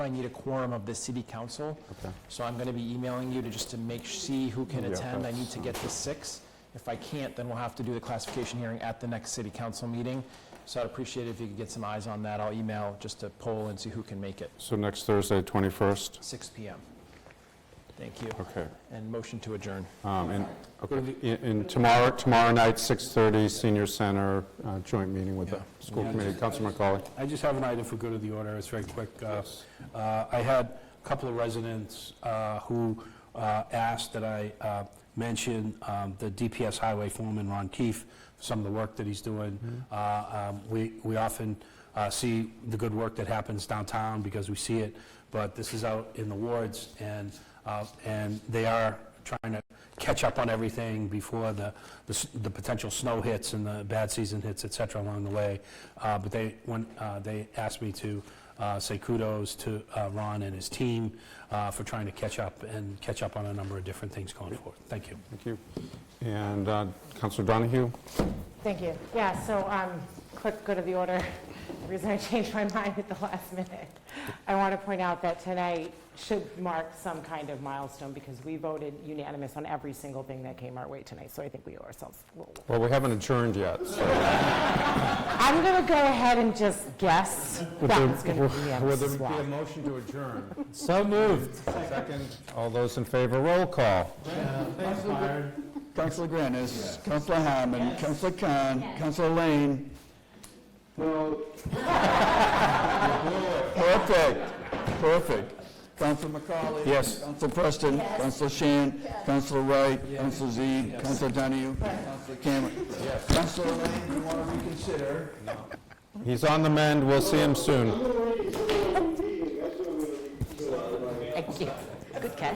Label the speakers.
Speaker 1: I need a quorum of the city council, so I'm going to be emailing you to just to make, see who can
Speaker 2: Yeah,
Speaker 1: attend. I need
Speaker 2: that's-
Speaker 1: to get the six. If I can't, then we'll have to do the classification hearing at the next city council meeting. So I'd appreciate it if you could get some eyes on that. I'll email just to poll and see who can make it,
Speaker 2: So next Thursday, 21st?
Speaker 1: 6 PM. Thank you.
Speaker 2: Okay.
Speaker 1: And motion to adjourn.
Speaker 2: Um, And okay. And- and tomorrow, tomorrow night, 6:30, Senior Center, uh, joint meeting with the
Speaker 1: Yeah.
Speaker 2: school
Speaker 3: Yeah.
Speaker 2: committee. Councilman McCauley?
Speaker 3: I just have an item for good of the order, it's very quick. Uh, uh, I had a couple of residents uh, who uh, asked that I uh, mention um, the DPS Highway Foreman, Ron Keefe, for some of the work that he's doing. Uh, um, We we often uh, see the good work that happens downtown because we see it, but this is out in the wards, and, uh, and they are trying to catch up on everything before the, the s- the potential snow hits and the bad season hits, et cetera, along the way. Uh, But they, when, uh, they asked me to uh, say kudos to uh, Ron and his team uh, for trying to catch up and catch up on a number of different things going forward. Thank you.
Speaker 2: Thank you. And uh, Councilor Donahue?
Speaker 4: Thank you. Yeah, so, um, quick, go to the order. The reason I changed my mind at the last minute. I want to point out that tonight should mark some kind of milestone because we voted unanimous on every single thing that came our way tonight, so I think we owe ourselves a little.
Speaker 2: Well, we haven't adjourned yet, so...
Speaker 4: I'm going to go ahead and just guess that's going to be
Speaker 2: Would
Speaker 4: unanimous
Speaker 2: there
Speaker 4: as
Speaker 2: be a
Speaker 4: well.
Speaker 2: motion to adjourn? So moved. Second. All those in favor, roll call.
Speaker 5: Councilor Granis, Councilor Hammond, Councilor Khan, Councilor Lane. Perfect, perfect. Councilor McCauley.
Speaker 2: Yes.
Speaker 5: Councilor Preston. Councilor Shan. Councilor Wright. Councilor Zede. Councilor Donahue. Councilor Cameron. Councilor Lane, you want to reconsider?
Speaker 2: He's on the mend, we'll see him soon.
Speaker 4: Thank you. Good catch.